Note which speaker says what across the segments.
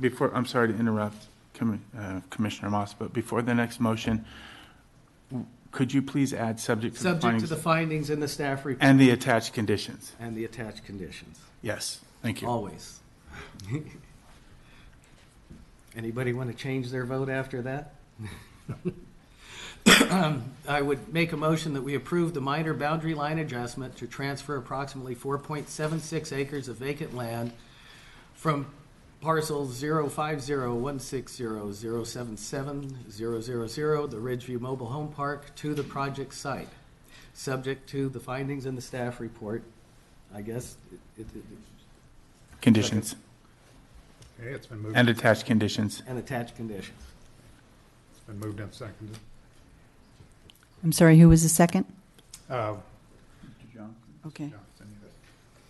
Speaker 1: Before, I'm sorry to interrupt Commi- uh, Commissioner Moss, but before the next motion, w- could you please add subject to the
Speaker 2: Subject to
Speaker 1: findings?
Speaker 2: the findings in the staff report
Speaker 1: And the attached conditions.
Speaker 2: and the attached conditions,
Speaker 1: Yes, thank you.
Speaker 2: always. Anybody want to change their vote after that? I would make a motion that we approve the minor boundary line adjustment to transfer approximately 4.76 acres of vacant land from parcel 0501600770000, the Ridgeview Mobile Home Park, to the project site, subject to the findings in the staff report. I guess it- it- it-
Speaker 1: Conditions
Speaker 3: Okay, it's been moved,
Speaker 1: and attached conditions.
Speaker 2: and attached conditions.
Speaker 3: it's been moved and seconded.
Speaker 4: I'm sorry, who was the second?
Speaker 3: Uh,
Speaker 4: Okay.
Speaker 3: Johnson, yes,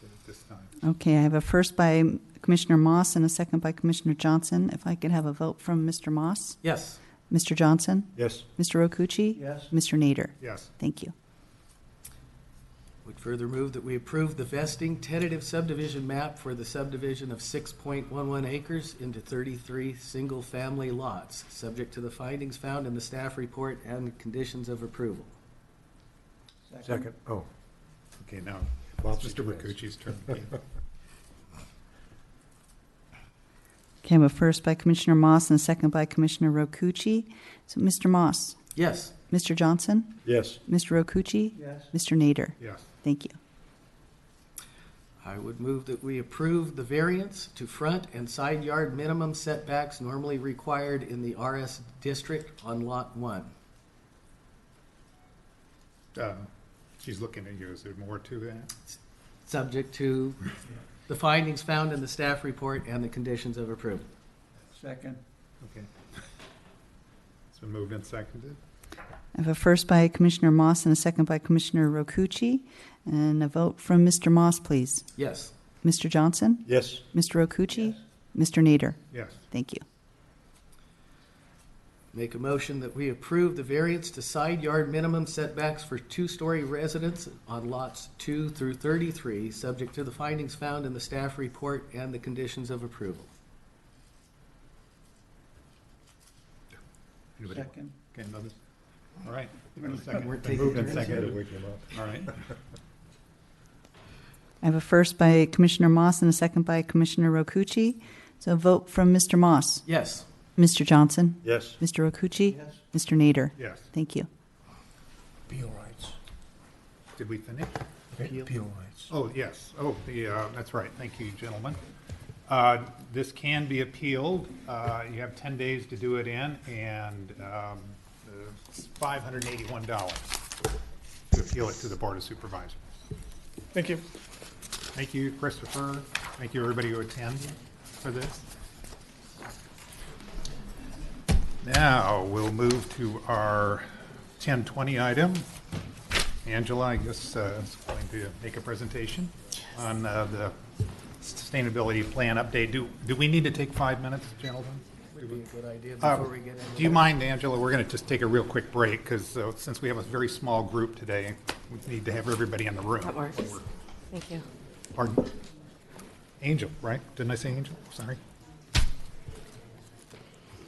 Speaker 3: at this time.
Speaker 4: Okay, I have a first by Commissioner Moss and a second by Commissioner Johnson. If I could have a vote from Mr. Moss,
Speaker 2: Yes,
Speaker 4: Mr. Johnson,
Speaker 3: Yes.
Speaker 4: Mr. Rokucci?
Speaker 5: Yes.
Speaker 4: Mr. Nader?
Speaker 3: Yes,
Speaker 4: Thank you.
Speaker 2: would further move that we approve the vesting tentative subdivision map for the subdivision of 6.11 acres into 33 single-family lots, subject to the findings found in the staff report and conditions of approval.
Speaker 5: Second. Oh,
Speaker 3: okay, now,
Speaker 5: Bob
Speaker 3: it's Mr.
Speaker 5: suggests.
Speaker 3: Ricucci's turn again.
Speaker 4: Okay, I have a first by Commissioner Moss and a second by Commissioner Rokucci. So, Mr. Moss,
Speaker 2: Yes,
Speaker 4: Mr. Johnson,
Speaker 5: yes.
Speaker 4: Mr. Rokucci?
Speaker 5: Yes.
Speaker 4: Mr. Nader?
Speaker 3: Yes,
Speaker 4: Thank you.
Speaker 2: I would move that we approve the variance to front and side yard minimum setbacks normally required in the RS district on Lot 1.
Speaker 3: um, she's looking at you, is there more to that?
Speaker 2: subject to the findings found in the staff report and the conditions of approval.
Speaker 5: Second.
Speaker 3: Okay. It's been moved and seconded,
Speaker 4: I have a first by Commissioner Moss and a second by Commissioner Rokucci. And a vote from Mr. Moss, please.
Speaker 2: Yes,
Speaker 4: Mr. Johnson,
Speaker 5: Yes.
Speaker 4: Mr. Rokucci? Mr. Nader?
Speaker 3: yes,
Speaker 4: Thank you.
Speaker 2: make a motion that we approve the variance to side yard minimum setbacks for two-story residents on lots two through thirty-three, subject to the findings found in the staff report and the conditions of approval.
Speaker 3: anybody?
Speaker 5: Second.
Speaker 3: Okay, another, all right.
Speaker 2: We're
Speaker 3: Second. Been
Speaker 2: taking
Speaker 3: moved and
Speaker 2: turns.
Speaker 3: seconded, all right,
Speaker 4: I have a first by Commissioner Moss and a second by Commissioner Rokucci. So a vote from Mr. Moss,
Speaker 2: Yes,
Speaker 4: Mr. Johnson,
Speaker 5: Yes.
Speaker 4: Mr. Rokucci,
Speaker 5: Yes.
Speaker 4: Mr. Nader.
Speaker 3: yes,
Speaker 4: Thank you.
Speaker 6: Appeal rights,
Speaker 3: did we finish?
Speaker 6: appeal rights.
Speaker 3: Oh, yes. Oh, the, uh, that's right. Thank you, gentlemen. Uh, This can be appealed. Uh, You have 10 days to do it in, and um, it's $581 to appeal it to the Board of Supervisors.
Speaker 7: Thank you.
Speaker 3: Thank you, Christopher. Thank you, everybody who attended for this. Now, we'll move to our 1020 item. Angela, I guess, uh, is going to make a presentation on uh, the sustainability plan update. Do, do we need to take five minutes, gentlemen?
Speaker 2: would be a good idea
Speaker 3: Uh,
Speaker 2: before we get into.
Speaker 3: Do you mind, Angela, we're going to just take a real quick break, because since we have a very small group today, we need to have everybody in the room.
Speaker 8: That works. Thank you.
Speaker 3: Pardon? Angel, right? Didn't I say Angel? Sorry.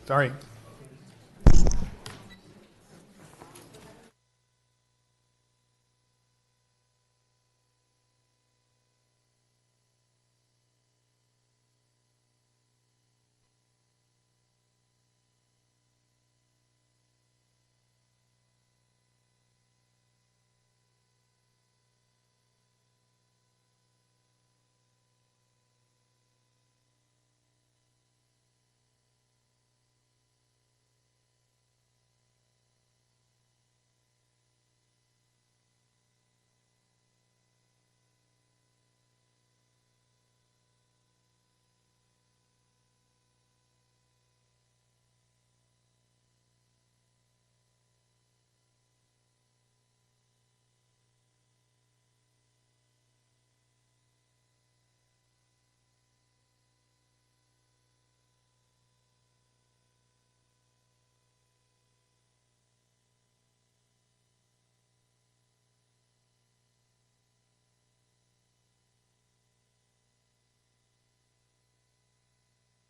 Speaker 3: Sorry.